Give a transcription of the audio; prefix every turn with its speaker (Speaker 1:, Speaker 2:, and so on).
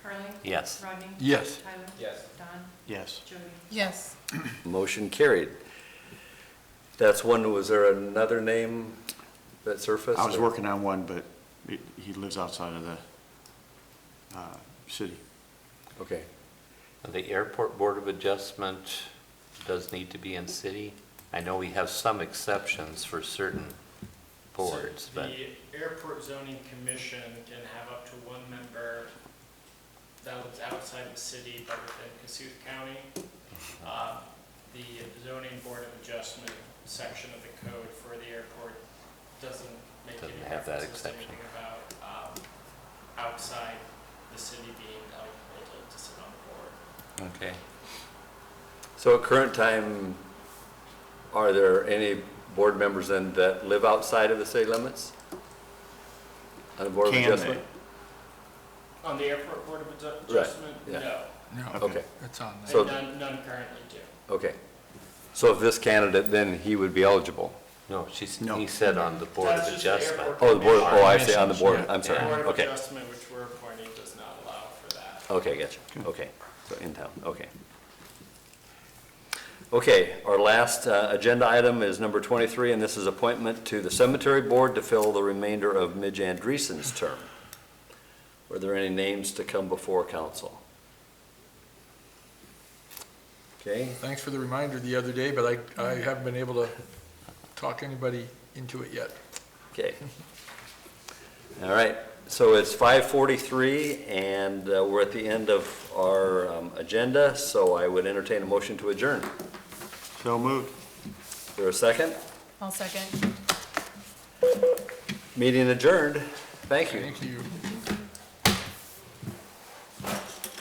Speaker 1: Yes.
Speaker 2: Rodney?
Speaker 3: Yes.
Speaker 2: Tyler?
Speaker 4: Yes.
Speaker 2: Don?
Speaker 1: Yes.
Speaker 2: Jody?
Speaker 5: Yes.
Speaker 6: Motion carried. That's one, was there another name that surfaced?
Speaker 3: I was working on one, but it- he lives outside of the uh, city.
Speaker 6: Okay.
Speaker 1: The Airport Board of Adjustment does need to be in city. I know we have some exceptions for certain boards,
Speaker 4: So
Speaker 1: but
Speaker 4: The airport zoning commission can have up to one member that lives outside the city but within Cassuth County. Uh, The zoning board of adjustment section of the code for the airport doesn't make
Speaker 1: Doesn't
Speaker 4: any
Speaker 1: have that
Speaker 4: references to
Speaker 1: exception.
Speaker 4: anything about um, outside the city being eligible to- to sit on the board.
Speaker 1: okay.
Speaker 6: So at current time, are there any board members then that live outside of the city limits? On the board of
Speaker 3: Can they?
Speaker 6: adjustment?
Speaker 4: On the airport board of adju-
Speaker 6: Right,
Speaker 4: adjustment?
Speaker 6: yeah.
Speaker 4: No,
Speaker 6: Okay,
Speaker 7: It's on there.
Speaker 6: So-
Speaker 4: and none, none currently do.
Speaker 6: okay. So if this candidate, then he would be eligible?
Speaker 1: No, she's,
Speaker 3: No.
Speaker 1: he said on the Board
Speaker 4: That's
Speaker 1: of
Speaker 4: just the
Speaker 1: Adjustment.
Speaker 4: airport.
Speaker 6: Oh, the board, oh, I see, on the
Speaker 7: Commissions,
Speaker 6: board,
Speaker 7: yeah.
Speaker 6: I'm sorry,
Speaker 4: Board of
Speaker 6: okay.
Speaker 4: adjustment, which we're appointing, does not allow for that.
Speaker 6: Okay, gotcha. Okay, so in town, okay. Okay, our last uh, agenda item is number 23, and this is appointment to the cemetery board to fill the remainder of Midge Andreessen's term. Were there any names to come before council? Okay,
Speaker 7: Thanks for the reminder the other day, but I, I haven't been able to talk anybody into it yet.
Speaker 6: okay. All right, so it's 5:43, and uh, we're at the end of our um, agenda, so I would entertain a motion to adjourn.
Speaker 3: So moved.
Speaker 6: Is there a second?
Speaker 5: I'll second.
Speaker 6: Meeting adjourned. Thank you.
Speaker 7: Thank you.